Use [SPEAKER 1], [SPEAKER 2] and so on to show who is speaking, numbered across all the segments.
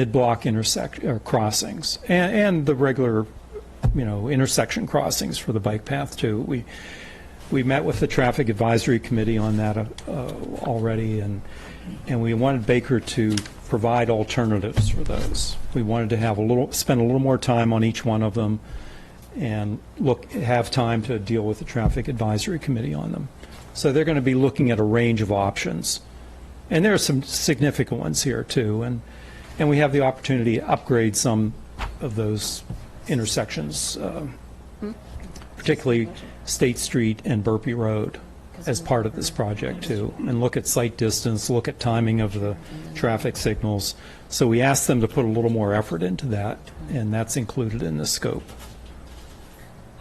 [SPEAKER 1] mid-block intersect, or crossings, and, and the regular, you know, intersection crossings for the bike path too. We, we met with the Traffic Advisory Committee on that uh, already, and, and we wanted Baker to provide alternatives for those. We wanted to have a little, spend a little more time on each one of them and look, have time to deal with the Traffic Advisory Committee on them. So they're going to be looking at a range of options. And there are some significant ones here, too. And, and we have the opportunity to upgrade some of those intersections, uh, particularly State Street and Burpee Road, as part of this project, too. And look at sight distance, look at timing of the traffic signals. So we asked them to put a little more effort into that, and that's included in the scope.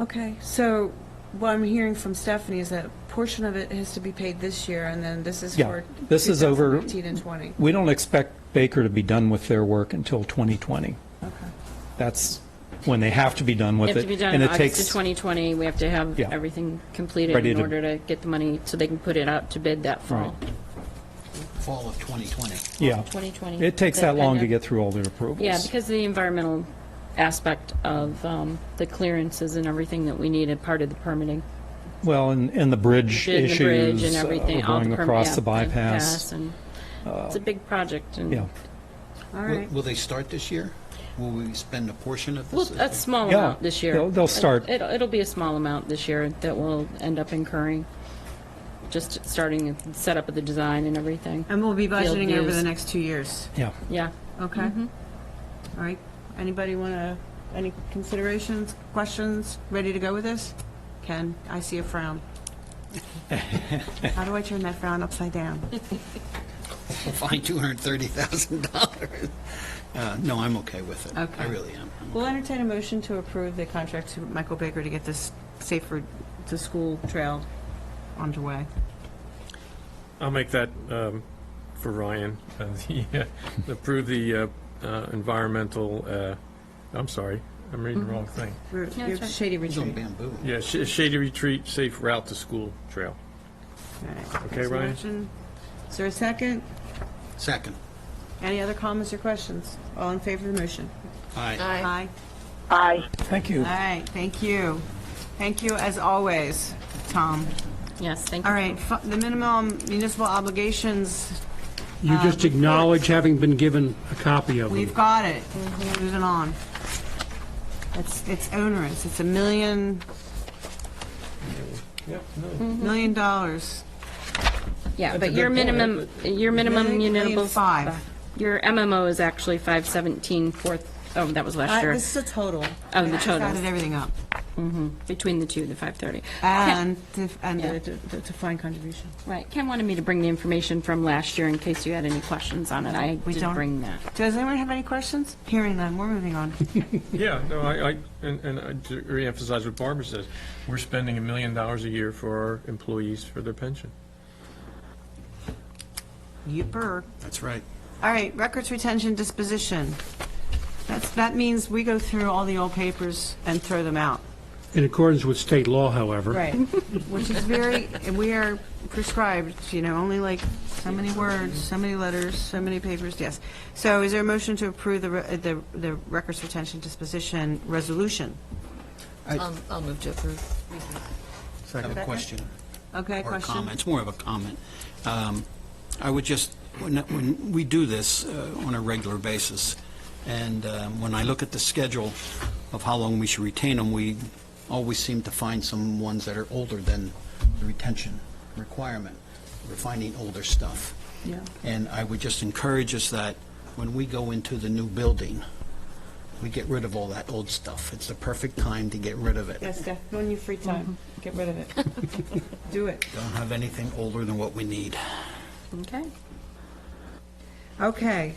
[SPEAKER 2] Okay, so what I'm hearing from Stephanie is that a portion of it has to be paid this year, and then this is
[SPEAKER 1] Yeah,
[SPEAKER 2] for
[SPEAKER 1] this is over-
[SPEAKER 2] 2019 and 20.
[SPEAKER 1] We don't expect Baker to be done with their work until 2020. That's when they have to be done
[SPEAKER 3] They
[SPEAKER 1] with it.
[SPEAKER 3] have to be done
[SPEAKER 1] and
[SPEAKER 3] in
[SPEAKER 1] it
[SPEAKER 3] August
[SPEAKER 1] takes-
[SPEAKER 3] of 2020. We have to have
[SPEAKER 1] Yeah.
[SPEAKER 3] everything completed
[SPEAKER 1] Ready
[SPEAKER 3] in
[SPEAKER 1] to-
[SPEAKER 3] order to get the money so they can put it out to bid that fall.
[SPEAKER 4] fall of 2020.
[SPEAKER 1] Yeah.
[SPEAKER 3] 2020.
[SPEAKER 1] It takes that long to
[SPEAKER 3] kinda-
[SPEAKER 1] get through all their approvals.
[SPEAKER 3] Yeah, because the environmental aspect of um, the clearances and everything that we needed, part of the permitting.
[SPEAKER 1] Well, and, and the bridge
[SPEAKER 3] Did the
[SPEAKER 1] issues.
[SPEAKER 3] bridge and
[SPEAKER 1] uh,
[SPEAKER 3] everything, all
[SPEAKER 1] Going
[SPEAKER 3] perm-
[SPEAKER 1] across
[SPEAKER 3] yeah,
[SPEAKER 1] the bypass. Uh,
[SPEAKER 3] and It's a big project
[SPEAKER 1] Yeah.
[SPEAKER 3] and,
[SPEAKER 2] All
[SPEAKER 4] Will-
[SPEAKER 2] right,
[SPEAKER 4] Will they start this year? Will we spend a portion of
[SPEAKER 3] well,
[SPEAKER 4] this?
[SPEAKER 3] a small
[SPEAKER 1] Yeah,
[SPEAKER 3] amount this year.
[SPEAKER 1] they'll- they'll start-
[SPEAKER 3] It'll, it'll be a small amount this year that we'll end up incurring, just starting the setup of the design and everything.
[SPEAKER 2] and we'll be
[SPEAKER 3] Field
[SPEAKER 2] budgeting over
[SPEAKER 3] use.
[SPEAKER 2] the next two years,
[SPEAKER 1] Yeah.
[SPEAKER 3] Yeah.
[SPEAKER 2] okay? All right, anybody want to, any considerations, questions, ready to go with this? Ken, I see a frown. How do I turn that frown upside down?
[SPEAKER 4] Find $230,000. Uh, No, I'm okay with it.
[SPEAKER 2] Okay.
[SPEAKER 4] I really am. I'm-
[SPEAKER 2] We'll entertain a motion to approve the contract to Michael Baker to get this safer, to school trail underway.
[SPEAKER 5] I'll make that um, for Ryan, uh, the, uh, approve the uh, uh, environmental, uh, I'm sorry, I'm reading the wrong thing.
[SPEAKER 2] We're-
[SPEAKER 3] Yeah,
[SPEAKER 2] you're
[SPEAKER 3] that's right.
[SPEAKER 2] Shady
[SPEAKER 4] He's on
[SPEAKER 2] Retreat.
[SPEAKER 4] bamboo.
[SPEAKER 5] Yeah, Sh- Shady Retreat Safe Route to School Trail.
[SPEAKER 2] Alright.
[SPEAKER 5] Okay,
[SPEAKER 2] There's a
[SPEAKER 5] Ryan?
[SPEAKER 2] motion. Is there a second?
[SPEAKER 4] Second.
[SPEAKER 2] Any other comments or questions? All in favor of the motion?
[SPEAKER 4] Aye.
[SPEAKER 2] Aye.
[SPEAKER 1] Thank you.
[SPEAKER 2] All right, thank you. Thank you, as always, Tom.
[SPEAKER 3] Yes, thank you.
[SPEAKER 2] All right, fu- the minimum municipal obligations,
[SPEAKER 6] You just acknowledge having been given a copy of
[SPEAKER 2] we've
[SPEAKER 6] them.
[SPEAKER 2] got it.
[SPEAKER 3] Mm-hmm.
[SPEAKER 2] Moving on. It's it's onerous, it's a million,
[SPEAKER 3] Mm-hmm.
[SPEAKER 2] million dollars.
[SPEAKER 3] Yeah,
[SPEAKER 5] a
[SPEAKER 3] but
[SPEAKER 5] good
[SPEAKER 3] your
[SPEAKER 5] point.
[SPEAKER 3] minimum, your minimum
[SPEAKER 2] Million, million
[SPEAKER 3] municipal.
[SPEAKER 2] five.
[SPEAKER 3] Your MMO is actually five seventeen fourth, oh, that was
[SPEAKER 2] Uh,
[SPEAKER 3] last year,
[SPEAKER 2] This is a total.
[SPEAKER 3] Oh, the
[SPEAKER 2] I just
[SPEAKER 3] total.
[SPEAKER 2] Added everything up.
[SPEAKER 3] between the two, the five thirty.
[SPEAKER 2] And, the- and
[SPEAKER 3] Yeah.
[SPEAKER 2] the the- the defined contribution.
[SPEAKER 3] Right, Ken wanted me to bring the information from last year in case you had any questions on it. I
[SPEAKER 2] We
[SPEAKER 3] did
[SPEAKER 2] don't-
[SPEAKER 3] bring that.
[SPEAKER 2] Does anyone have any questions? Hearing none, we're moving on.
[SPEAKER 5] Yeah, no, I, I- and and I to reemphasize what Barbara says, we're spending a million dollars a year for our employees for their pension.
[SPEAKER 2] Yipper.
[SPEAKER 4] That's right.
[SPEAKER 2] All right, records retention disposition. That's, that means we go through all the old papers and throw them out.
[SPEAKER 6] In accordance with state law, however.
[SPEAKER 2] Which is very, and we are prescribed, you know, only like so many words, so many letters, so many papers, yes. So is there a motion to approve the, re- uh, the, the records retention disposition resolution?
[SPEAKER 7] Um, I'll move to approve.
[SPEAKER 4] I have a question.
[SPEAKER 2] Okay,
[SPEAKER 4] or a
[SPEAKER 2] question?
[SPEAKER 4] comment. It's more of a comment. Um, I would just, when, when we do this uh, on a regular basis, and um, when I look at the schedule of how long we should retain them, we always seem to find some ones that are older than the retention requirement. We're finding older stuff.
[SPEAKER 2] Yeah.
[SPEAKER 4] And I would just encourage us that when we go into the new building, we get rid of all that old stuff. It's the perfect time to get rid of it.
[SPEAKER 2] Yes, Steph, go in your free time, get rid of it. Do it.
[SPEAKER 4] Don't have anything older than what we need.
[SPEAKER 3] Okay.
[SPEAKER 2] Okay.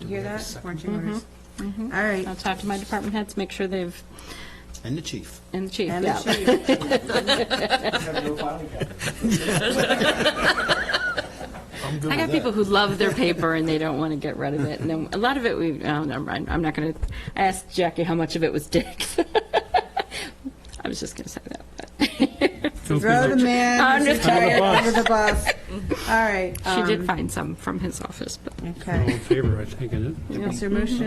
[SPEAKER 2] You hear
[SPEAKER 4] we have a
[SPEAKER 2] that?
[SPEAKER 4] second?
[SPEAKER 2] Marching orders.
[SPEAKER 3] Mm-hmm.
[SPEAKER 2] All right.
[SPEAKER 3] I'll talk to my department heads, make sure they've,
[SPEAKER 4] And the chief.
[SPEAKER 3] and the chief,
[SPEAKER 2] And
[SPEAKER 3] yeah.
[SPEAKER 2] the chief.
[SPEAKER 3] I got people who love their paper and they don't want to get rid of it. And then a lot of it, we, oh, never mind. I'm not going to, I asked Jackie how much of it was Dick's. I was just going to say that. but-
[SPEAKER 6] Don't be
[SPEAKER 2] Throw
[SPEAKER 6] like-
[SPEAKER 2] the man
[SPEAKER 3] I'm
[SPEAKER 2] who's
[SPEAKER 3] just
[SPEAKER 2] retired under the bus. All right.
[SPEAKER 8] She did
[SPEAKER 2] um,
[SPEAKER 8] find some from his office, but.
[SPEAKER 3] All
[SPEAKER 2] Okay.
[SPEAKER 3] in favor, I think, isn't it?
[SPEAKER 2] Is there a motion